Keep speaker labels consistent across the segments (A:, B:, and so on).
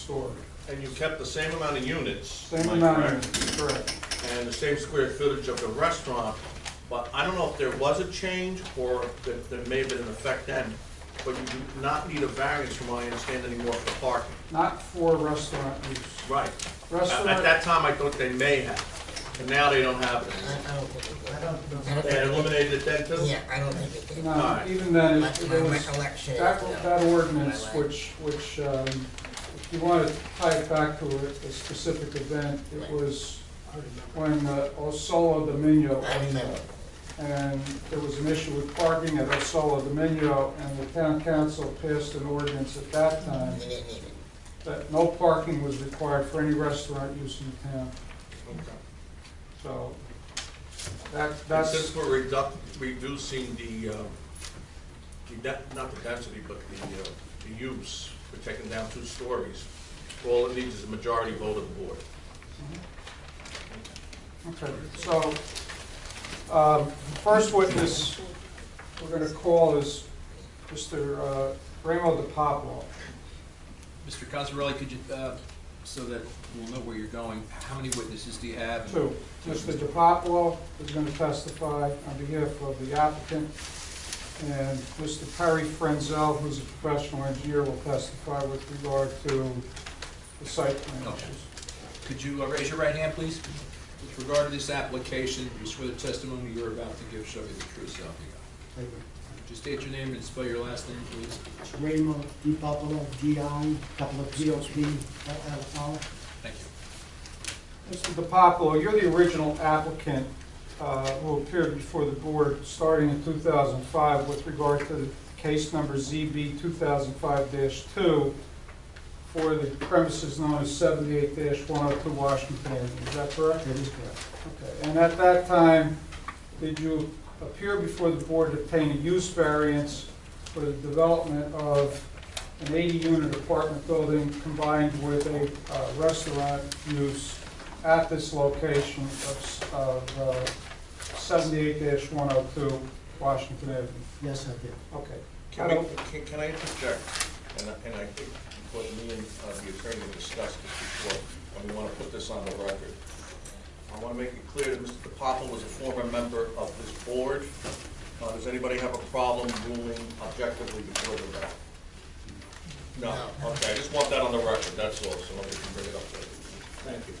A: stored.
B: And you kept the same amount of units
A: Same
B: am I
A: amount,
B: correct?
A: of- correct.
B: and the same square footage of the restaurant, but I don't know if there was a change or that there may have been an effect then, but you do not need a variance from what I understand anymore for parking.
A: Not for restaurant use.
B: Right. At at
A: Restaurant,
B: that time, I thought they may have, and now they don't have
C: I
B: it.
C: don't think it was.
D: I
C: I
D: don't know.
C: don't
B: They
C: think
B: eliminated it then
C: it-
B: too?
C: Yeah, I don't think it did.
A: no,
B: Alright.
A: even then, it
C: That's my
A: there was,
C: recollection.
A: that,
C: of it.
A: that ordinance,
C: My
A: which, which, um, if you want to tie it back to a, a specific event, it
C: Right.
A: was when uh, Osola Dominio
C: I
A: owned
C: remember.
A: it. and there was an issue with parking at Osola Dominio, and the town council passed an ordinance at that time
C: We didn't need it.
A: that no parking was required for any restaurant use in the town,
B: Okay.
A: so that,
B: And
A: that's.
B: since we're reduc- reducing the, uh, the de- not the density, but the, uh, the use, we're taking down two stories, all it needs is a majority vote of the board.
A: Okay, so, um, first witness we're gonna call is Mr. uh, Ramo De Popolo.
E: Mr. Cosarelli, could you, uh, so that we'll know where you're going, how many witnesses do you have?
A: Two, Mr. De Popolo is gonna testify on behalf of the applicant, and Mr. Perry Frenzel, who's a professional engineer, will testify with regard to the site plan
E: Okay.
A: issues.
E: Could you uh, raise your right hand, please? With regard to this application, you swear the testimony you're about to give shall be the truth, so help you God. Just state your name and spell your last name, please.
D: Raymond Di Popolo, D-I, Popolo, P-O-P-O-L-O.
E: Thank you.
A: Mr. De Popolo, you're the original applicant uh, who appeared before the board starting in 2005 with regard to the case number ZB 2005-2 for the premises known as 78-102 Washington Avenue. Is that correct?
D: That is correct.
A: Okay. And at that time, did you appear before the board to obtain a use variance for the development of an 80-unit apartment building combined with a uh, restaurant use at this location of s- of uh, 78-102 Washington Avenue?
D: Yes, I did.
A: Okay.
B: Can we, can, can I interject? And I, and I think what me and uh, the attorney have discussed this before, and we wanna put this on the record. I wanna make it clear that Mr. DePapo was a former member of this board. Uh, does anybody have a problem ruling objectively before the vote? No,
C: No.
B: okay, I just want that on the record, that's all, so nobody can bring it up later. Thank you.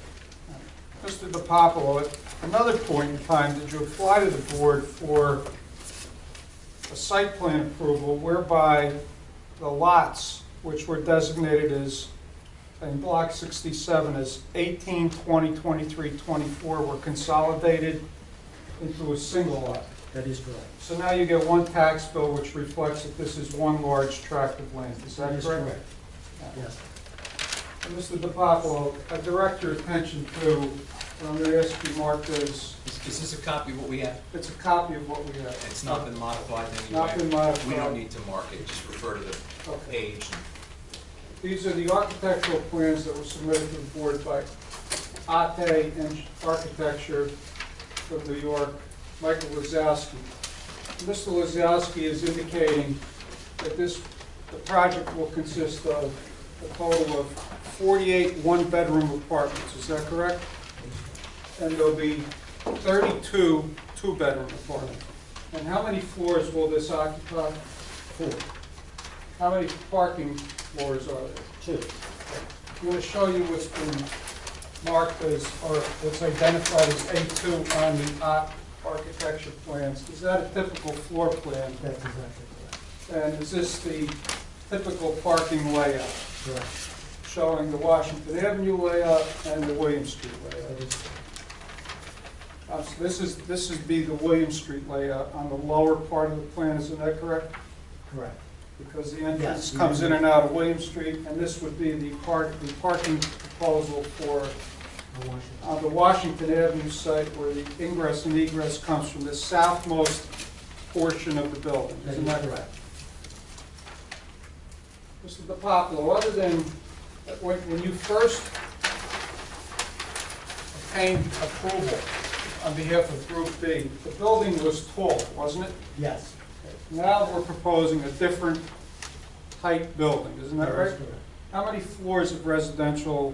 A: Mr. DiPapolo, at another point in time, did you apply to the board for a site plan approval whereby the lots, which were designated as, in Block 67, as 18, 20, 23, 24, were consolidated into a single lot?
D: That is correct.
A: So now you get one tax bill which reflects that this is one large tract of land. Is that
D: That
A: correct?
D: is correct. Yes.
A: And Mr. DiPapolo, I direct your attention to, what I'm going to ask you marked as,
E: Is is this a copy of what we have?
A: it's a copy of what we have.
E: It's not been modified in any way?
A: Not been modified.
E: We don't need to mark it, just refer to the
A: Okay.
E: page. and-
A: These are the architectural plans that were submitted to the board by Ate Eng- Architecture from New York, Michael Wazowski. Mr. Wazowski is indicating that this, the project will consist of a total of 48 one-bedroom apartments, is that correct? And there'll be 32 two-bedroom apartments. And how many floors will this occupy?
D: Four,
A: How many parking floors are there?
D: two.
A: I'm going to show you what's been marked as, or what's identified as A2 on the ar- architecture plans. Is that a typical floor plan?
D: That's exactly correct.
A: And is this the typical parking layout,
D: Correct.
A: showing the Washington Avenue layout and the William Street
D: That
A: layout?
D: is,
A: Uh, so This is, this would be the William Street layout on the lower part of the plan, isn't that correct?
D: correct.
A: Because the entrance
D: Yes.
A: comes in and out of William Street, and this would be the park, the parking proposal for
D: I want you
A: on the Washington Avenue site where the ingress and egress comes from the southmost portion of the building.
D: to-
A: Isn't that correct? Mr. DiPapolo, other than, uh, when when you first obtained approval on behalf of Group B, the building was tall, wasn't it?
D: Yes.
A: Now we're proposing a different height building, isn't that
D: That
A: right?
D: is correct.
A: How many floors of residential